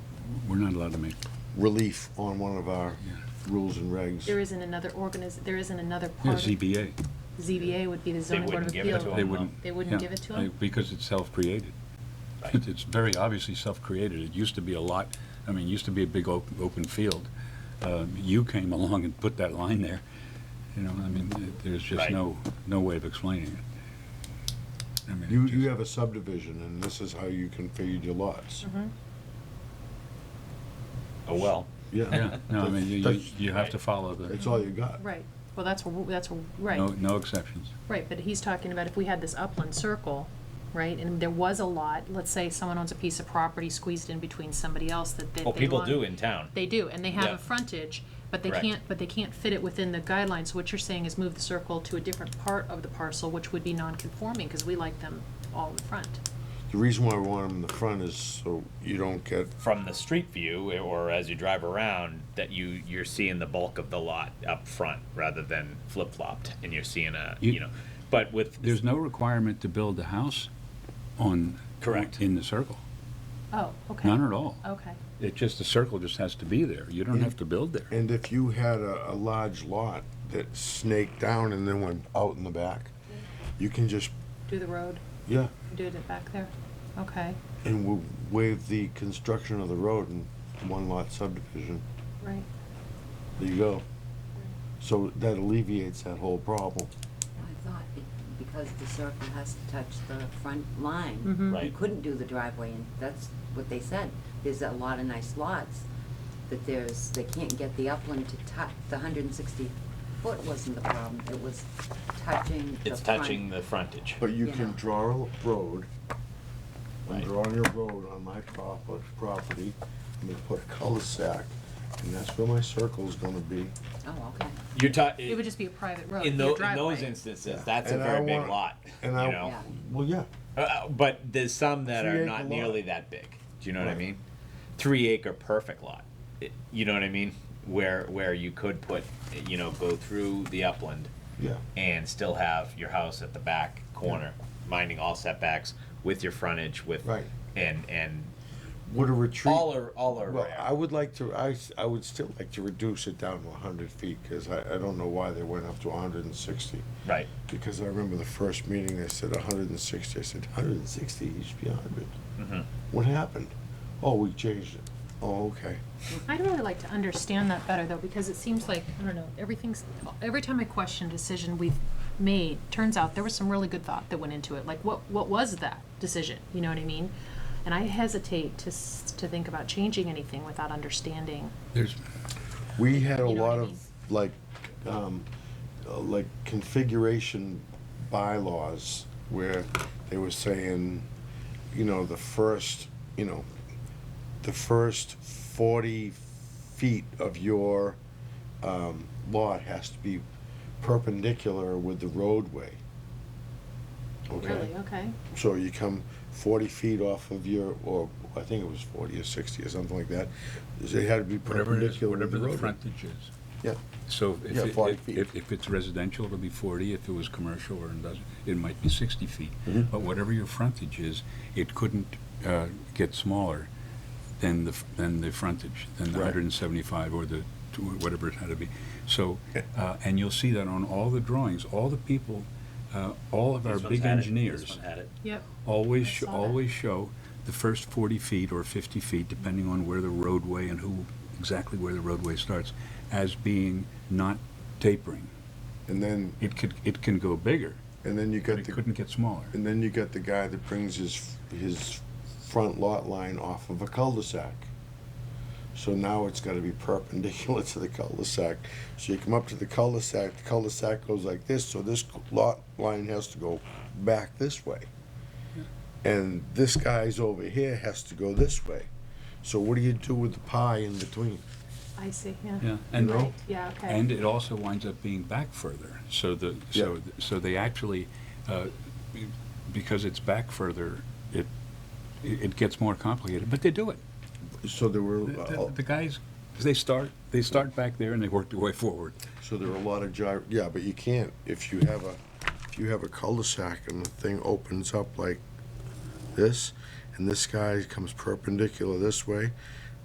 We're not allowed to make relief on one of our rules and regs. There isn't another organiz, there isn't another Yeah, part. of ZBA. ZBA would be the zoning board of wouldn't give it appeal. to 'em. They wouldn't. They wouldn't yeah, give it to I- 'em? Because it's self-created. Right. It- It's very obviously self-created. It used to be a lot, I mean, it used to be a big op- open field. Uh, You came along and put that line there, you know, I mean, th- there's just Right. no, no way of explaining it. I mean, it You, just- you have a subdivision, and this is how you configured your lots. Oh, well. Yeah, no, I mean, you- you, That's- you have to follow the, That's all you got. Right, well, that's, wh- that's, wh- no, right, no exceptions. right, but he's talking about if we had this upland circle, right, and there was a lot, let's say someone owns a piece of property squeezed in between somebody else that that they. Well, people want- do in town. They do, and they have Yeah. a frontage, but they Correct. can't, but they can't fit it within the guidelines, so what you're saying is move the circle to a different part of the parcel, which would be non-conforming, because we like them all in front. The reason why we want them in the front is so you don't get, From the street view, or as you drive around, that you, you're seeing the bulk of the lot up front rather than flip-flopped, and you're seeing a, You- you know, but with, There's no requirement to build a house on. Correct. In the circle, Oh, okay. none at all. Okay, It just, the circle just has to be there. You don't have to build there. and if you had a, a large lot that snaked down and then went out in the back, you can just, do the road, yeah, do it back there, okay, and we'll waive the construction of the road in one lot subdivision. right. There you go. So that alleviates that whole problem. I thought be- because the circle has to touch the front line, Mhm. you right, couldn't do the driveway, and that's what they said. There's a lot of nice lots, but there's, they can't get the upland to touch, the hundred and sixty foot wasn't the problem, it was touching the front. it's touching the frontage. But you can Yeah. draw a road, I'm Right. drawing a road on my prop- uh, property, I'm gonna put a cul-de-sac, and that's where my circle's gonna be. Oh, okay, You're ta- It would just be a private road, in be a tho- in driveway. those instances, that's a And I very big want- lot, you And I, know? Yeah. well, yeah, Uh, But there's some that are Three-acre not lot. nearly that big. Do you know what I Right. mean? Three acre perfect lot. It- You know what I mean? Where where you could put, you know, go through the upland yeah. and still have your house at the back corner, minding all setbacks with your frontage with Right. and and Would a retreat? all are all are Well, rare. I would like to, I, s- I would still like to reduce it down to hundred feet, cause I, I don't know why they went up to hundred and sixty. right. Because I remember the first meeting, they said hundred and sixty, I said, hundred and sixty, you should be hundred. Mm-hmm. What happened? Oh, we changed it. Oh, okay. I'd really like to understand that better, though, because it seems like, I don't know, everything's, every time I question a decision we've made, turns out there was some really good thought that went into it, like, what, what was that decision, you know what I mean? And I hesitate to, s- to think about changing anything without understanding. There's, We had a You know what lot I of, mean? like, um, uh, like configuration bylaws where they were saying, you know, the first, you know, the first forty feet of your, um, lot has to be perpendicular with the roadway. Okay? Really, okay, So you come forty feet off of your, or I think it was forty or sixty or something like that, it had to be whatever it is, perpendicular with whatever the the roadway. frontage is. Yeah. So if, Yeah, it- 40 if- feet. if, if it's residential, it'll be 40. If it was commercial or industrial, it might be 60 feet. Mm-hmm. But whatever your frontage is, it couldn't uh, get smaller than the, f- than the frontage, than the Right. 175 or the, tw- whatever it had to be. So, uh, and you'll see that on all the drawings, all the people, uh, all of our These ones big had it. engineers. This one had it. yep, Always, I sho- saw that. always show the first 40 feet or 50 feet, depending on where the roadway and who, exactly where the roadway starts, as being not tapering. And then, It could, it can go bigger, and then you but got it the, couldn't get smaller. and then you got the guy that brings his, his front lot line off of a cul-de-sac. So now it's gotta be perpendicular to the cul-de-sac. So you come up to the cul-de-sac, the cul-de-sac goes like this, so this lot line has to go back this way. And this guy's over here has to go this way. So what do you do with the pie in between? I see, yeah. Yeah, and, You know? Right, yeah, okay. and it also winds up being back further. So the, so, Yeah. so they actually, uh, because it's back further, it, it gets more complicated, but they do it. So there were, The- uh, The the guys, they start, they start back there and they work their way forward. So there are a lot of gyr, yeah, but you can't, if you have a, if you have a cul-de-sac and the thing opens up like this, and this guy comes perpendicular this way,